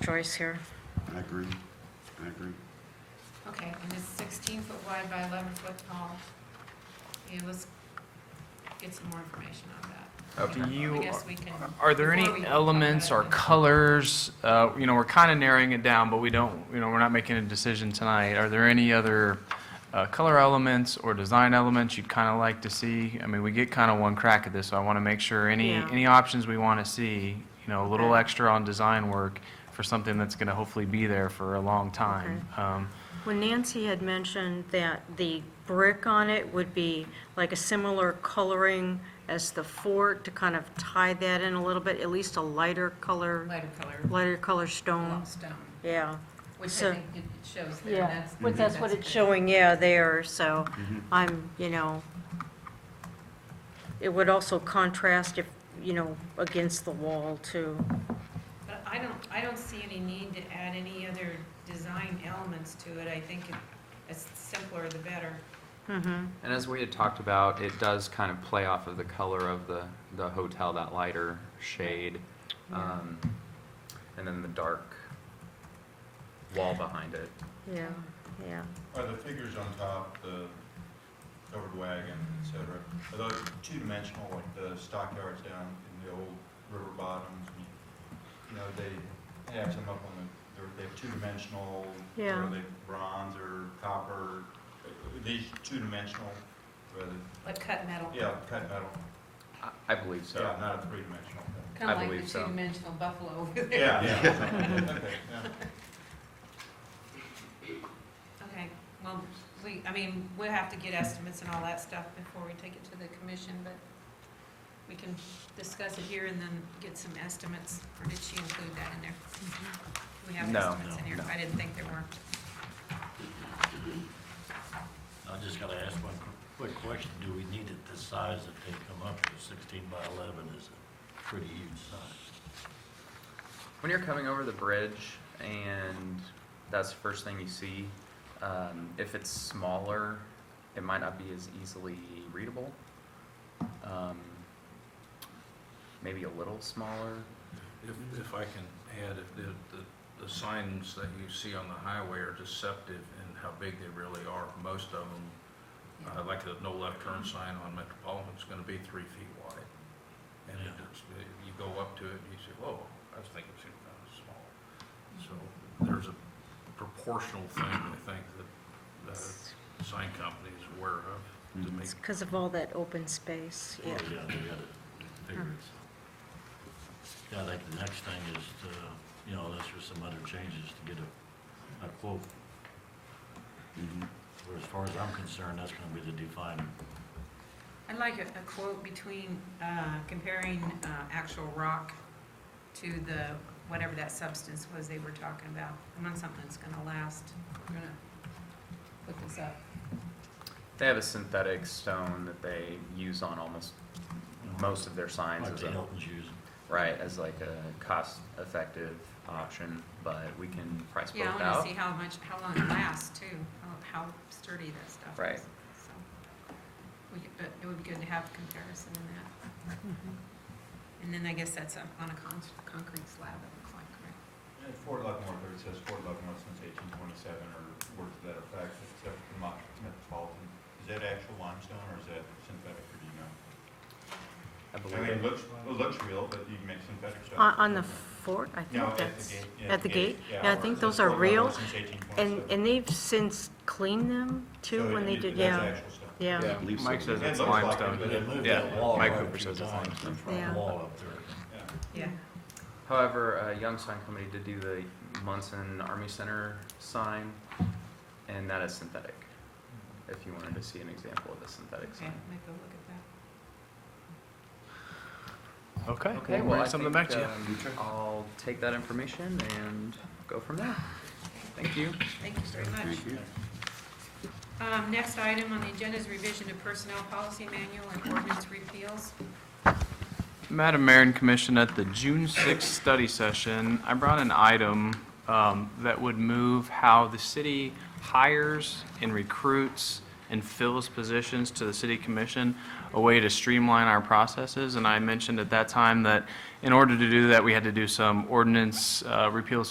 choice here. I agree, I agree. Okay, and it's sixteen foot wide by eleven foot tall. Yeah, let's get some more information on that. Okay. Do you- I guess we can. Are there before we any vote on elements that, or I think- colors, uh, you know, we're kind of narrowing it down, but we don't, you know, we're not making a decision tonight. Are there any other uh, color elements or design elements you'd kind of like to see? I mean, we get kind of one crack at this, so I want to make sure any, Yeah. any options we want to see, you know, a little Okay. extra on design work for something that's going to hopefully be there for a long time. Um, When Nancy had mentioned that the brick on it would be like a similar coloring as the fort to kind of tie that in a little bit, at least a lighter color, Lighter color, lighter color stone, block stone, yeah. which So- I think it it shows there. Yeah, That's- but that's what that's it's good. showing, yeah, there, so I'm, you know, it would also contrast if, you know, against the wall too. But I don't, I don't see any need to add any other design elements to it. I think it- it's simpler the better. Mm-hmm, And as we had talked about, it does kind of play off of the color of the, the hotel, that lighter shade. Um, and then the dark wall behind it. Yeah, yeah. Are the figures on top, the covered wagon, et cetera, are those two-dimensional, like the stockyards down in the old river bottoms? and, You know, they have some up on the, they're- they're two-dimensional, Yeah. are they bronze or copper? Are These two-dimensional, rather, Like cut metal. yeah, cut metal, I, I believe so so. not a three-dimensional thing. Kind I of like believe the so. two-dimensional buffalo over there. Yeah, yeah. Okay, yeah. Okay, well, we, I mean, we'll have to get estimates and all that stuff before we take it to the commission, but we can discuss it here and then get some estimates, or did she include that in there? Do we have No, estimates in no, here? no. I didn't think there were. I just gotta ask one quick question. Do we need it this size that they come up with? Sixteen by eleven is a pretty huge size. When you're coming over the bridge and that's the first thing you see, um, if it's smaller, it might not be as easily readable. Um, maybe a little smaller. If, if I can add, if the, the, the signs that you see on the highway are deceptive in how big they really are, most of them, uh, like the no left turn sign on Metropolitan's gonna be three feet wide. And Yeah. it's, you go up to it and you say, whoa, I was thinking it seemed kind of small. So there's a proportional thing, I think, Uh, that the sign company is aware of to make It's because of all that open space, yeah. Yeah, they gotta figure it out. Yeah, I think the next thing is to, you know, unless there's some other changes to get a, a quote. Mm-hmm. But as far as I'm concerned, that's gonna be the defining. I'd like a a quote between, uh, comparing uh, actual rock to the, whatever that substance was they were talking about. I want something that's gonna last. We're gonna put this up. They have a synthetic stone that they use on almost most of their signs Like as the a, Hilton's using. right, as like a cost-effective option, but we can price both Yeah, out. I wanna see how much, how long it lasts too, how, how sturdy that stuff is. Right. So, We, could- but it would be good to have a comparison in that. Mm-hmm. And then I guess that's on on a con- concrete slab, it looks like, right? Yeah, Fort Leavenworth, or it says Fort Leavenworth since eighteen twenty-seven, or words to that effect, except for the Mo- Metropolitan. Is that actual limestone, or is that synthetic, or do you know? I I mean, it believe. looks, it looks real, but you can make synthetic stuff. On, on the fort, I um, No, think at that's. At the gate, yeah, the gate? Yeah, yeah, I where it think says those are Fort real. Leavenworth since And, 1827. and they've since cleaned them too, So when it- they it- did, that's yeah, actual stuff. yeah. I believe so. Mike says It it's looks like it, limestone. but But they moved Yeah, that wall Mike quite a Cooper few says it's times, limestone. the front Yeah. Wall up there. Yeah. Yeah. However, uh, Young Sign Company did do the Munson Army Center sign, and that is synthetic. If you wanted to see an example of a synthetic Okay, sign. might go look at that. Okay, Okay, we'll well, bring I something think, back to you. um, I'll take that information and go from there. Thank you. Thank you very much. Um, next item on the agenda is revision to personnel policy manual and ordinance repeals. Madam Mayor and Commission, at the June 6th study session, I brought an item um, that would move how the city hires and recruits and fills positions to the city commission, a way to streamline our processes. And I mentioned at that time that in order to do that, we had to do some ordinance uh, repeals